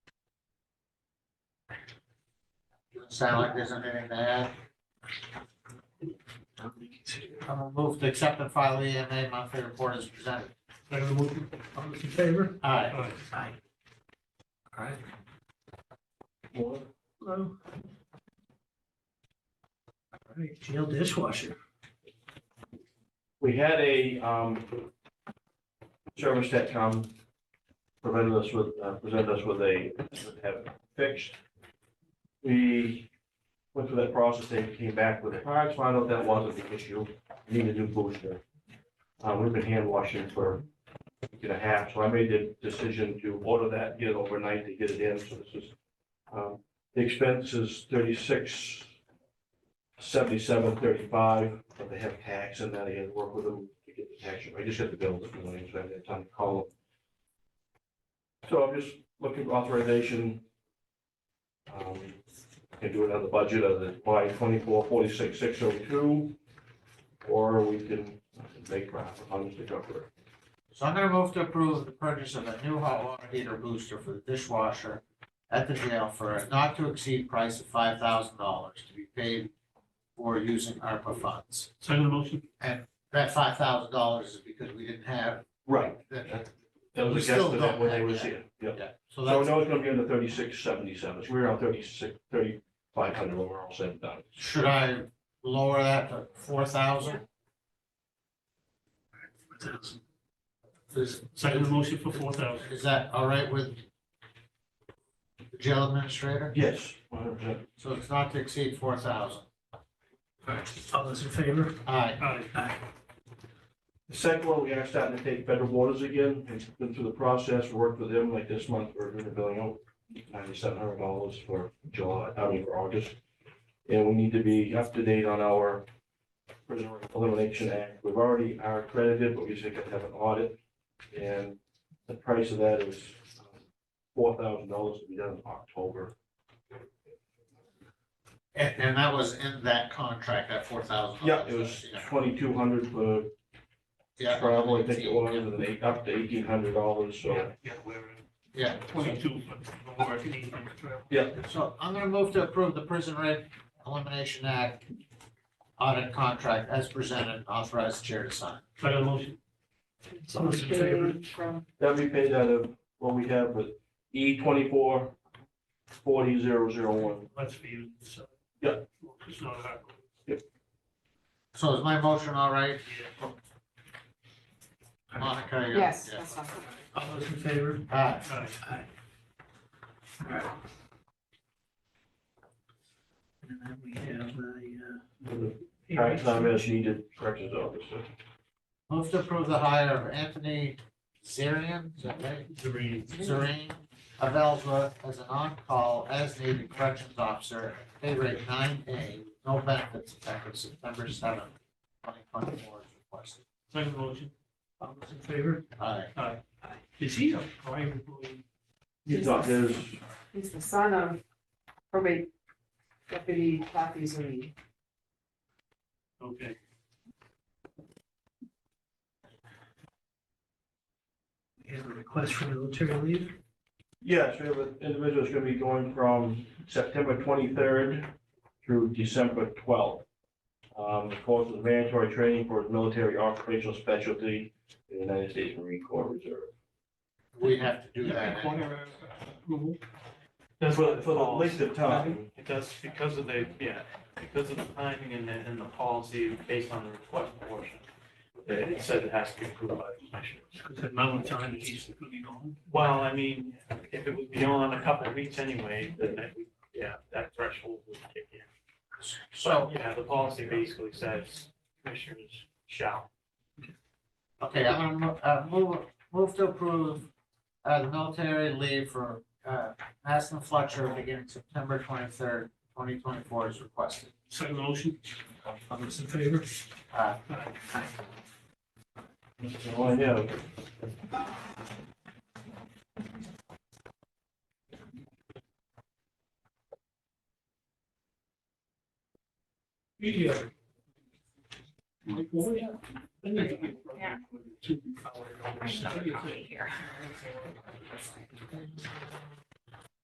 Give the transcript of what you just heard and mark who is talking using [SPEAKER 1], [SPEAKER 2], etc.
[SPEAKER 1] sound like there's anything to add. I'm gonna move to accept and file E the EMA monthly report as presented.
[SPEAKER 2] Second motion, all those in favor?
[SPEAKER 1] Aye.
[SPEAKER 2] Aye.
[SPEAKER 1] Aye.
[SPEAKER 2] Aye. Hello. All right, jail dishwasher.
[SPEAKER 3] We had a, um, service that come, presented us with, uh, presented us with a, would have fixed. We went through that process, they came back with parts, found out that wasn't the issue, We need a new booster. Uh, we've been hand washing for a week and a half, so I made the decision to order that, get it overnight, to get it in, so this is, um, the expense is thirty-six, seventy-seven, thirty-five but they have tax and that I had to work with them to get the tax. I just got the bill this morning, so I didn't have time to call them. So I'm just looking for authorization. Um, I Can do it on the budget of the by twenty-four forty-six six oh two, or we can make profit on this cover.
[SPEAKER 1] So I'm gonna move to approve the purchase of a new hot water heater booster for the dishwasher at the jail for a not to exceed price of five thousand dollars to be paid for using ARPA funds.
[SPEAKER 2] Second motion,
[SPEAKER 1] That five thousand dollars is because we didn't have,
[SPEAKER 3] Right.
[SPEAKER 1] that,
[SPEAKER 3] That
[SPEAKER 1] We
[SPEAKER 3] was a
[SPEAKER 1] still
[SPEAKER 3] guesstimate
[SPEAKER 1] don't
[SPEAKER 3] when they
[SPEAKER 1] have
[SPEAKER 3] were
[SPEAKER 1] that.
[SPEAKER 3] here. Yep.
[SPEAKER 1] yeah, so
[SPEAKER 3] So
[SPEAKER 1] that's.
[SPEAKER 3] now it's gonna be under thirty-six seventy-seven. So we're on thirty-six, thirty-five hundred when we're all said and done.
[SPEAKER 1] Should I lower that to four thousand?
[SPEAKER 2] four thousand.
[SPEAKER 1] Is,
[SPEAKER 2] Second motion for four thousand.
[SPEAKER 1] is that all right with the jail administrator?
[SPEAKER 3] Yes, one hundred percent.
[SPEAKER 1] So it's not to exceed four thousand.
[SPEAKER 2] All right, all those in favor?
[SPEAKER 1] Aye.
[SPEAKER 2] Aye. Aye.
[SPEAKER 3] The second one, we are starting to take federal waters again, and been through the process, worked with them, like this month, we're gonna bill out ninety-seven hundred dollars for July, I mean, for August. And we need to be up to date on our prisoner elimination act, we've already are accredited, but we just have to have an audit. And the price of that is four thousand dollars to be done in October,
[SPEAKER 1] And, and that was in that contract, that four thousand.
[SPEAKER 3] yeah, it was twenty-two hundred for travel, I think it was, and then eight- up to eighteen hundred dollars, so.
[SPEAKER 2] Yeah, we're in.
[SPEAKER 1] Yeah.
[SPEAKER 2] Twenty-two, but no more if you need them.
[SPEAKER 1] So I'm gonna move to approve the Prison Rate Elimination Act audit contract as presented, and authorize the chair to sign.
[SPEAKER 2] Second motion. All those in favor?
[SPEAKER 4] From
[SPEAKER 3] That'd be paid out of what we have with E twenty-four forty zero zero one.
[SPEAKER 2] That's for you, so.
[SPEAKER 3] Yeah.
[SPEAKER 2] It's not hard.
[SPEAKER 1] So is my motion all right,
[SPEAKER 2] Yeah.
[SPEAKER 1] Monica? you're-
[SPEAKER 4] Yes,
[SPEAKER 1] yeah.
[SPEAKER 4] that's not.
[SPEAKER 2] All those in favor?
[SPEAKER 1] Aye.
[SPEAKER 2] Aye. All right. And then we have a, uh.
[SPEAKER 3] Tax time as needed, corrections officer.
[SPEAKER 1] Move to approve the hire of Anthony Zarian, is that right?
[SPEAKER 2] The reading.
[SPEAKER 1] Zarian of Ellsworth as an on-call as needed corrections officer, at pay rate nine A, no benefits effective September seventh, twenty twenty-four as requested.
[SPEAKER 2] Second motion. All those in favor?
[SPEAKER 1] Aye.
[SPEAKER 2] Aye. Is he a prime employee?
[SPEAKER 3] You thought there's,
[SPEAKER 4] He's the son of probate deputy Kathy Zerine.
[SPEAKER 2] Okay. We have a request for military leave.
[SPEAKER 3] yes, we have an individual that's gonna be going from September twenty-third through December twelfth. Um, of course, it's mandatory training for his military occupational specialty in the United States Marine Corps Reserve.
[SPEAKER 1] We have to do that.
[SPEAKER 5] Require approval.
[SPEAKER 3] That's what, for the
[SPEAKER 5] Laws.
[SPEAKER 3] length of time.
[SPEAKER 5] It does, because of the, yeah, because of the timing and the, and the policy based on the request portion. It it said it has to be approved by the commission.
[SPEAKER 2] Because at mountain time, he's going to be gone.
[SPEAKER 5] Well, I mean, if it was beyond a couple of weeks anyway, then that, we- yeah, that threshold would kick in.
[SPEAKER 1] So,
[SPEAKER 5] Yeah, the policy basically says commissioners shall.
[SPEAKER 1] okay, I'm gonna mo- uh, move, move to approve uh, the military leave for uh, Maston Fletcher beginning September twenty-third, twenty twenty-four as requested.
[SPEAKER 2] Second motion. All those in favor?
[SPEAKER 1] Aye.
[SPEAKER 2] Aye.
[SPEAKER 3] That's all Oh, I know.
[SPEAKER 2] Media.
[SPEAKER 4] Yeah.
[SPEAKER 2] Two hour overstay.
[SPEAKER 4] Here.